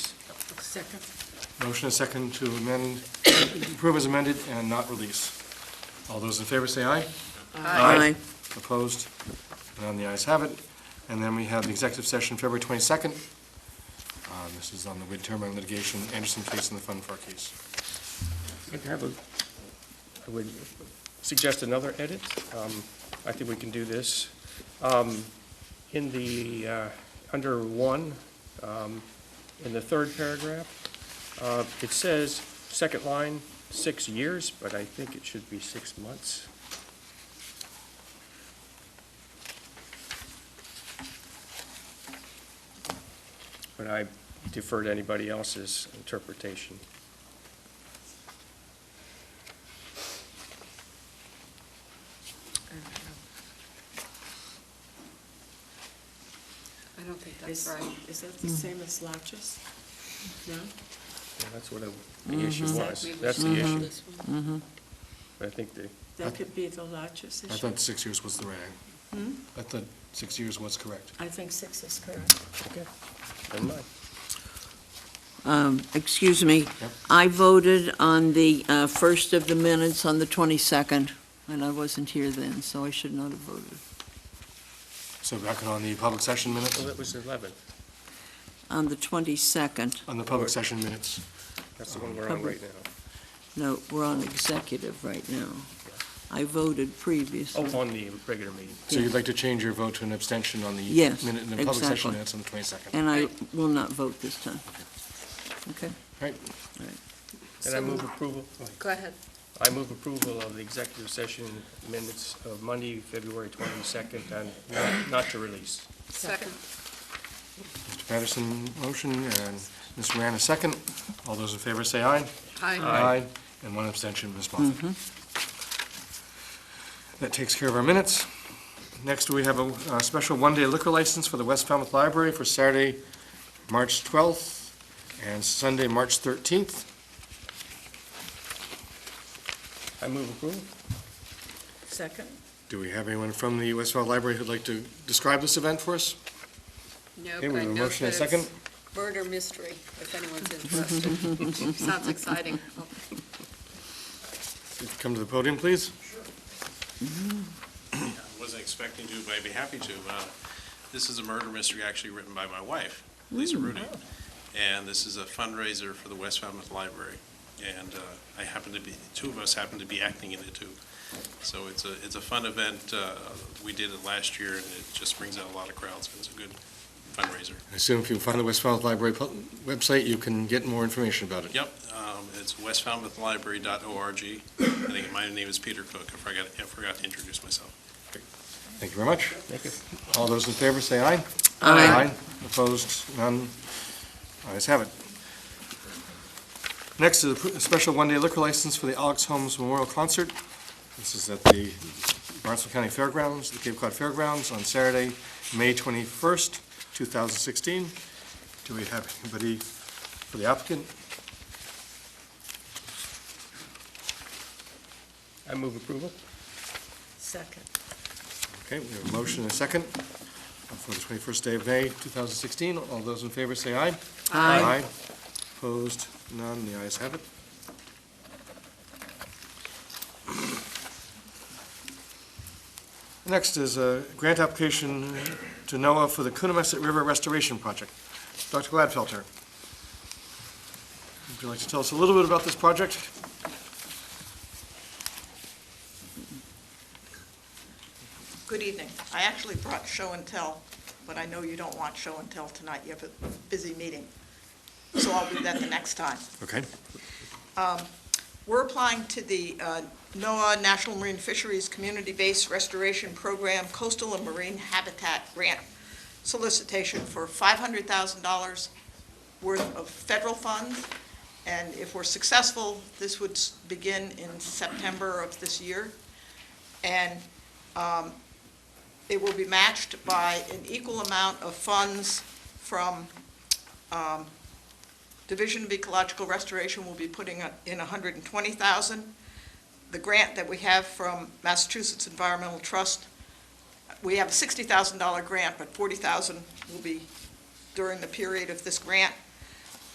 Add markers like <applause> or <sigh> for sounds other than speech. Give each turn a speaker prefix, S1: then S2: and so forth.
S1: Second.
S2: Motion and second to amend, approve as amended and not release. All those in favor say aye. Aye. Opposed? None, the ayes have it. And then we have the executive session, February 22nd. Uh, This is on the midterm on litigation, Anderson case and the Fund Far case.
S3: I have a, I would suggest another edit. Um, I think we can do this. Um, In the, uh, under one, um, in the third paragraph, uh, it says, second line, six years, but I think it should be six months. But I defer to anybody else's interpretation.
S1: I don't think that's right. Is that the same as Louch's? No?
S3: Yeah, That's what I- the issue was. That's the
S4: Mm-hmm.
S1: Exactly.
S3: issue.
S1: This one.
S3: I think the,
S1: That could be the Louch's
S2: I
S1: issue.
S2: thought six years was the right. I thought six years was correct.
S1: I think six is correct.
S3: okay, never mind.
S5: Um, Excuse me,
S2: Yep.
S5: I voted on the uh, first of the minutes on the 22nd, and I wasn't here then, so I should not have voted.
S2: So back on the public session minutes,
S3: Well, that was 11.
S5: On the 22nd,
S2: on the public session minutes.
S3: That's the one we're on right now.
S5: no, we're on executive right now. I voted previously.
S3: Oh, on the regular meeting.
S2: So you'd like to change your vote to an abstention on the
S5: Yes,
S2: minute, the public
S5: exactly.
S2: session minutes on the 22nd.
S5: And I will not vote this time. Okay?
S2: Right,
S3: And I
S1: So-
S3: move approval,
S1: Go ahead.
S3: I move approval of the executive session minutes of Monday, February 22nd, and not- not to release.
S1: Second.
S2: Mr. Patterson, motion, and Ms. Moran, a second. All those in favor say aye.
S1: Aye.
S3: Aye.
S2: And one abstention, Ms. Moffett. That takes care of our minutes. Next, we have a uh, special one-day liquor license for the West Falmouth Library for Saturday, March 12th, and Sunday, March 13th.
S3: I move approval.
S1: Second?
S2: Do we have anyone from the West Falmouth Library who'd like to describe this event for us?
S4: No,
S2: Okay,
S4: but
S2: we
S4: I
S2: have a
S4: know
S2: motion and a
S4: that it's
S2: second.
S4: murder mystery, if anyone's interested.
S2: <laughs>
S4: Sounds exciting.
S2: Come to the podium, please.
S6: I wasn't expecting to, but I'd be happy to. Uh, This is a murder mystery actually written by my wife, Lisa Rudy. And this is a fundraiser for the West Falmouth Library. And uh, I happen to be, two of us happen to be acting in it too. So it's a, it's a fun event. Uh, We did it last year and it just brings out a lot of crowds. It was a good fundraiser.
S2: I assume if you find the West Falmouth Library pu- website, you can get more information about it.
S6: Yep, um, it's westfalmouthlibrary.org. I think my name is Peter Cook. I forgot, I forgot to introduce myself.
S2: Thank you very much.
S3: Thank you.
S2: All those in favor, say aye.
S5: Aye.
S2: Opposed, none. Ayes have it. Next is a pr- a special one-day liquor license for the Alex Holmes Memorial Concert. This is at the Barnstable County Fairgrounds, the Cape Cod Fairgrounds, on Saturday, May 21st, 2016. Do we have anybody for the applicant?
S3: I move approval.
S1: Second.
S2: Okay, we have a motion and a second for the 21st day of May, 2016. All those in favor say aye. Aye. Opposed, none, the ayes have it. Next is a grant application to NOAA for the Coonamessett River Restoration Project. Dr. Gladfelter, would you like to tell us a little bit about this project?
S7: Good evening. I actually brought show and tell, but I know you don't want show and tell tonight. You have a busy meeting. So I'll do that the next time. Um,
S2: Okay.
S7: We're applying to the uh, NOAA National Marine Fisheries Community-Based Restoration Program Coastal and Marine Habitat Grant solicitation for $500,000 worth of federal funds. And if we're successful, this would s- begin in September of this year. And um, it will be matched by an equal amount of funds from um, Division of Ecological Restoration will be putting in $120,000. The grant that we have from Massachusetts Environmental Trust, we have a $60,000 grant, but $40,000 will be during the period of this grant.